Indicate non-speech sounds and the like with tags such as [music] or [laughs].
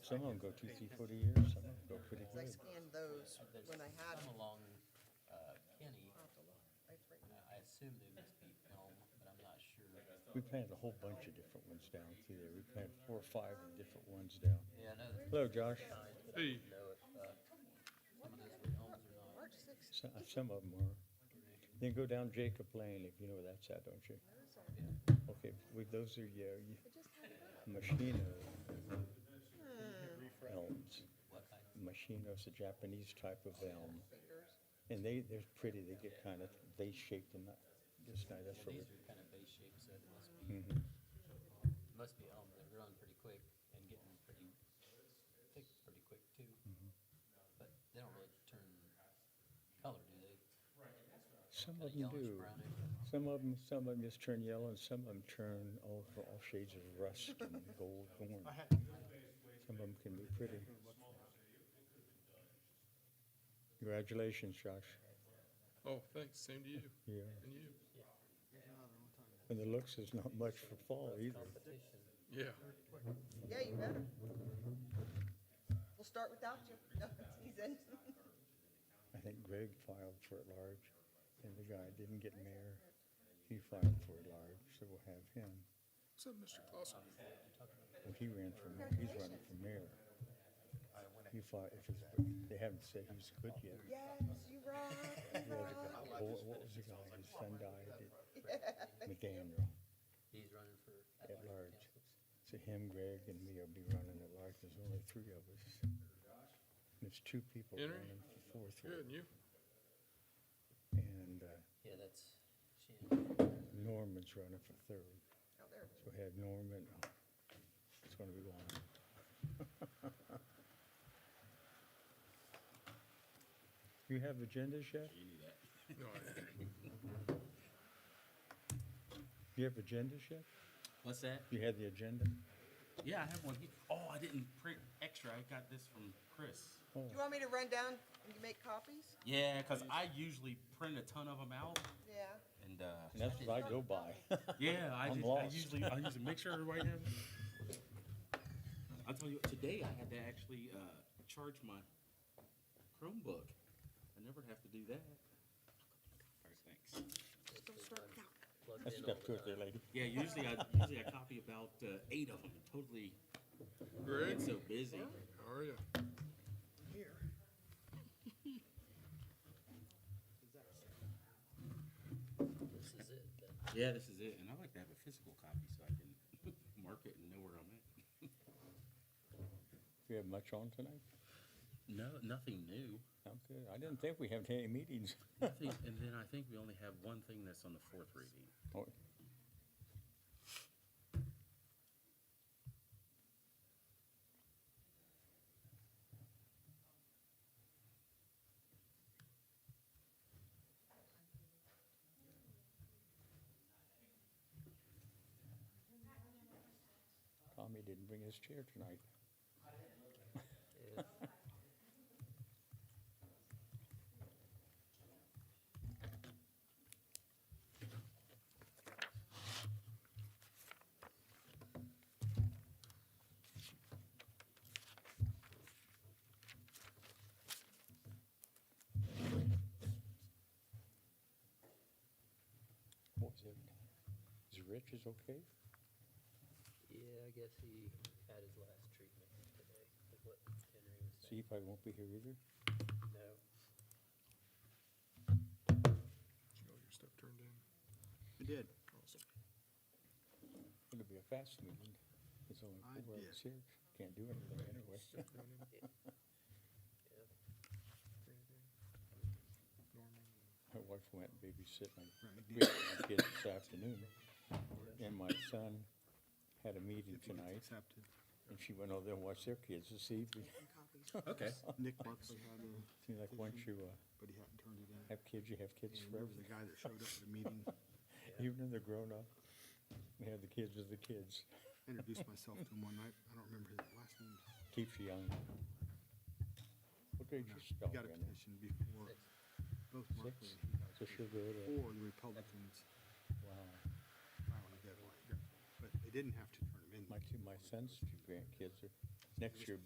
Some of them go two, three foot a year, some of them go pretty Because I good. scanned those There's when I had some them. along uh, Kenny. I'll have to look. I've written Uh, I assume they must be elm, but I'm not sure. We planted a whole bunch of different ones down through there. We planted four or five of different ones down. Yeah, I know that Hello, Josh. Hey, you know if uh, some of those were elms or not. March sixth. So- uh, Some of them are. Then go down Jacob Lane, if you know where that's at, don't you? Those are- Okay, with those are your I just had it up. machino Hmm, elms. What I, Machino's a Japanese type of elm. fingers. And they, they're pretty, they get kind of, they shaped and not, just nice, that's what we well, these are kind of base shaped, so they must be Mhm. must be elm. They're growing pretty quick and getting pretty thick pretty quick too. Mm-hmm. But they don't really turn color, do they? Some Kind of of them do. yellowish brownish. Some of them, some of them just turn yellow and some of them turn all, all shades of rust and gold orange. Some of them can be pretty. Congratulations, Josh. oh, thanks, same to you, Yeah. and you, And the looks is not much for fall either. Competition. yeah. Yeah, you better. We'll start without you. [laughs] No, he's in. I think Greg filed for it large and the guy didn't get mayor. He filed for it large, so we'll have him. What's up, Mr. Clausen? Well, he ran for, mayor. he's running for mayor. He filed, if it's, they haven't said he's good yet. Yes, you rock, [laughs] you rock. What, what was the guy, his son died at McDaniel. He's running for At athletic large. council. So him, Greg, and me will be running at large, there's only three of us. There's two people Henry? running for fourth Good, one. and you? And uh, Yeah, that's Shannon. Norman's running for third, Out Oh, there. so we have Norman, it's gonna be long. [laughs] You have agendas yet? No, I, You have agendas yet? What's that? You have the agenda? Yeah, I have one. here. Oh, I didn't print extra. I got this from Chris. Oh, Do you want me to run down and you make copies? Yeah, because I usually print a ton of them out, Yeah. and uh, and that's what I go by. [laughs] yeah, I, I'm just, I lost. usually I usually make sure everybody has. it. I'll tell you, what, today I had to actually uh, charge my Chromebook. I never have to do that. All right, thanks. Just don't start without. Plugged That's in got all two the or three time. lady. Yeah, usually I usually I copy about uh, eight of them. Totally Greg, get so busy. how are you? This is it. then. Yeah, this is it, and I like to have a physical copy so I can [laughs] mark it and know where I'm at. Do you have much on tonight? No, nothing new. I'm good. I didn't think we had any meetings. Nothing, and then I think we only have one thing that's on the fourth reading. Oh, Tommy didn't bring his chair tonight. Yeah. What was it? Is Rich is okay? Yeah, I guess he had his last treatment today, is what Henry was So saying. he probably won't be here either. No, Did you get all your stuff turned in? I did. Awesome. It'll be a fast meeting. It's only I four did. hours here. Can't do anything anyway. Stuff going in, yeah. Brandon, Norman, My wife went babysitting my [coughs] we Right. had my kids this afternoon. And my son had a meeting If it gets tonight accepted. and she went over there and watched their kids this evening. Okay. Nick Buckley had a, Seems like once you uh, but he hadn't turned it in. have kids, you have kids And there forever. was a guy that showed up at a meeting, Even when they're grown up, they have the kids as the kids. introduced myself to him one night. I don't remember his last name. Keeps you young. What grade No, your He dog got a in? petition before both Buckley Six? and he got So she'll go it. to, Or the Republicans wow. filing a deadline. But they didn't have to turn him in. My two, my son's two grandkids are, next year